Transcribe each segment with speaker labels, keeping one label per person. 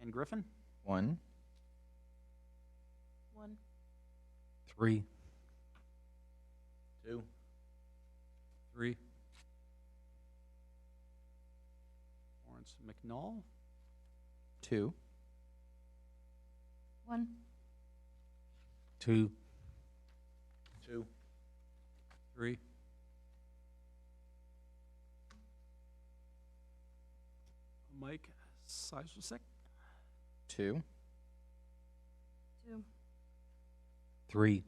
Speaker 1: and Griffin.
Speaker 2: One,
Speaker 3: One.
Speaker 4: Three.
Speaker 2: two,
Speaker 4: Three.
Speaker 1: Lawrence McNall,
Speaker 2: two,
Speaker 3: One.
Speaker 4: Two.
Speaker 2: two,
Speaker 4: Three.
Speaker 1: Mike Seiswick,
Speaker 2: two,
Speaker 3: Two.
Speaker 4: Three.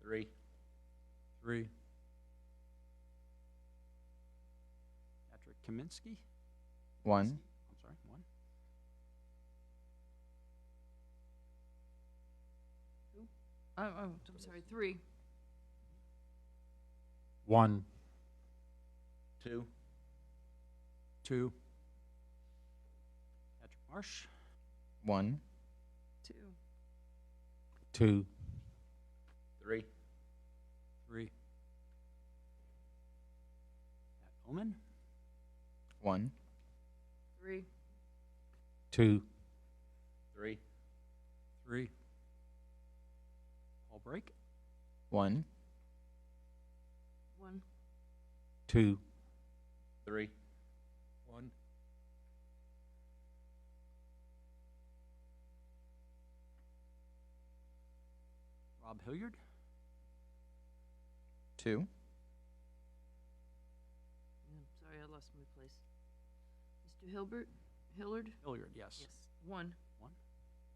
Speaker 2: three,
Speaker 4: Three.
Speaker 1: Patrick Kaminsky.
Speaker 2: one,
Speaker 1: I'm sorry, one.
Speaker 3: Oh, oh, I'm sorry, three.
Speaker 4: One.
Speaker 2: two,
Speaker 4: Two.
Speaker 1: Patrick Marsh,
Speaker 2: one,
Speaker 3: Two.
Speaker 4: Two.
Speaker 2: three,
Speaker 4: Three.
Speaker 1: Pat Omen,
Speaker 2: one,
Speaker 3: Three.
Speaker 4: Two.
Speaker 2: three,
Speaker 4: Three.
Speaker 1: Paul Brake,
Speaker 2: one,
Speaker 3: One.
Speaker 4: Two.
Speaker 2: three,
Speaker 4: One.
Speaker 1: Rob Hilliard,
Speaker 2: two,
Speaker 3: Yeah, Sorry, I lost my place. Mr. Hilbert, Hillard?
Speaker 1: Hilliard, yes.
Speaker 3: One.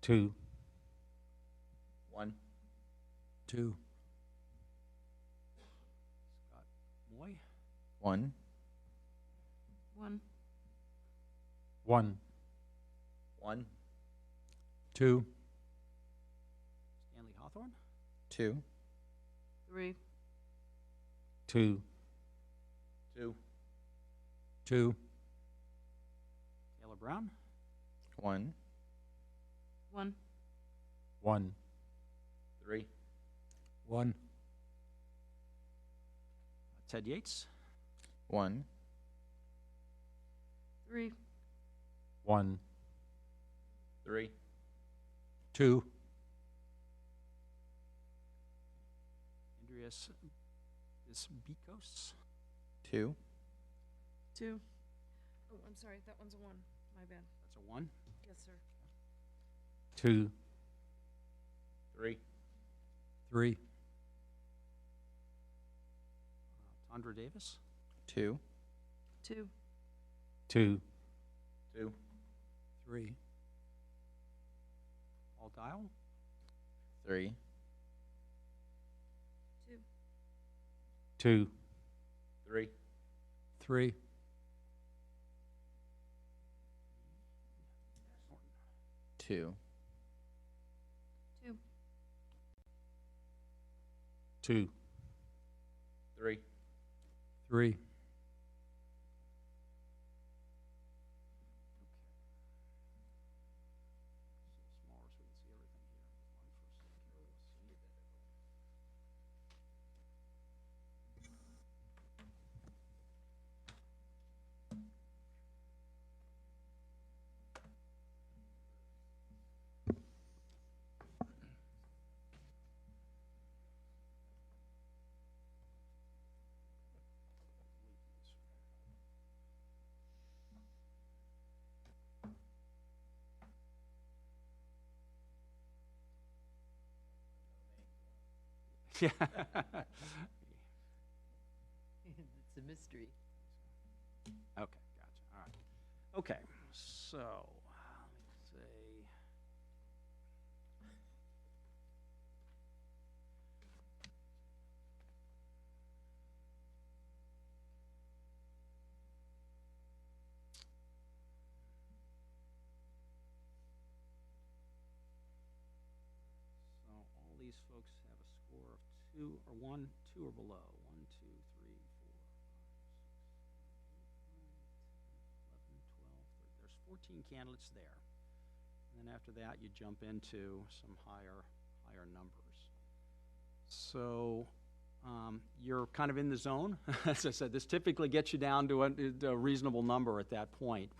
Speaker 4: Two.
Speaker 2: one,
Speaker 4: Two.
Speaker 1: Scott Moy,
Speaker 2: one,
Speaker 3: One.
Speaker 4: One.
Speaker 2: one,
Speaker 4: Two.
Speaker 1: Stanley Hawthorne,
Speaker 2: two,
Speaker 3: Three.
Speaker 4: Two.
Speaker 2: two,
Speaker 4: Two.
Speaker 1: Taylor Brown,
Speaker 2: one,
Speaker 3: One.
Speaker 4: One.
Speaker 2: three,
Speaker 4: One.
Speaker 1: Uh, Ted Yates,
Speaker 2: one,
Speaker 3: Three.
Speaker 4: One.
Speaker 2: three,
Speaker 4: Two.
Speaker 1: Andreas Bisbikos,
Speaker 2: two,
Speaker 3: Two. Oh, I'm sorry, that one's a one. My bad.
Speaker 1: that's a one.
Speaker 3: Yes, sir.
Speaker 4: Two.
Speaker 2: three,
Speaker 4: Three.
Speaker 1: Uh, Tondra Davis,
Speaker 2: two,
Speaker 3: Two.
Speaker 4: Two.
Speaker 2: two,
Speaker 4: Three.
Speaker 1: Paul Dial,
Speaker 2: three,
Speaker 3: Two.
Speaker 4: Two.
Speaker 2: three,
Speaker 4: Three.
Speaker 2: two,
Speaker 3: Two.
Speaker 4: Two.
Speaker 2: three,
Speaker 4: Three.
Speaker 1: so smaller so we can see everything here. Yeah.
Speaker 3: It's a mystery.
Speaker 1: Okay, gotcha, all right. Okay, so, let's see. So all these folks have a score of two or one, two or below. One, two, three, four, five, six, seven, eight, nine, 10, 11, 12, 13. There's 14 candidates there. And then after that, you jump into some higher, higher numbers. So um, you're kind of in the zone. As I said, this typically gets you down to a- a reasonable number at that point.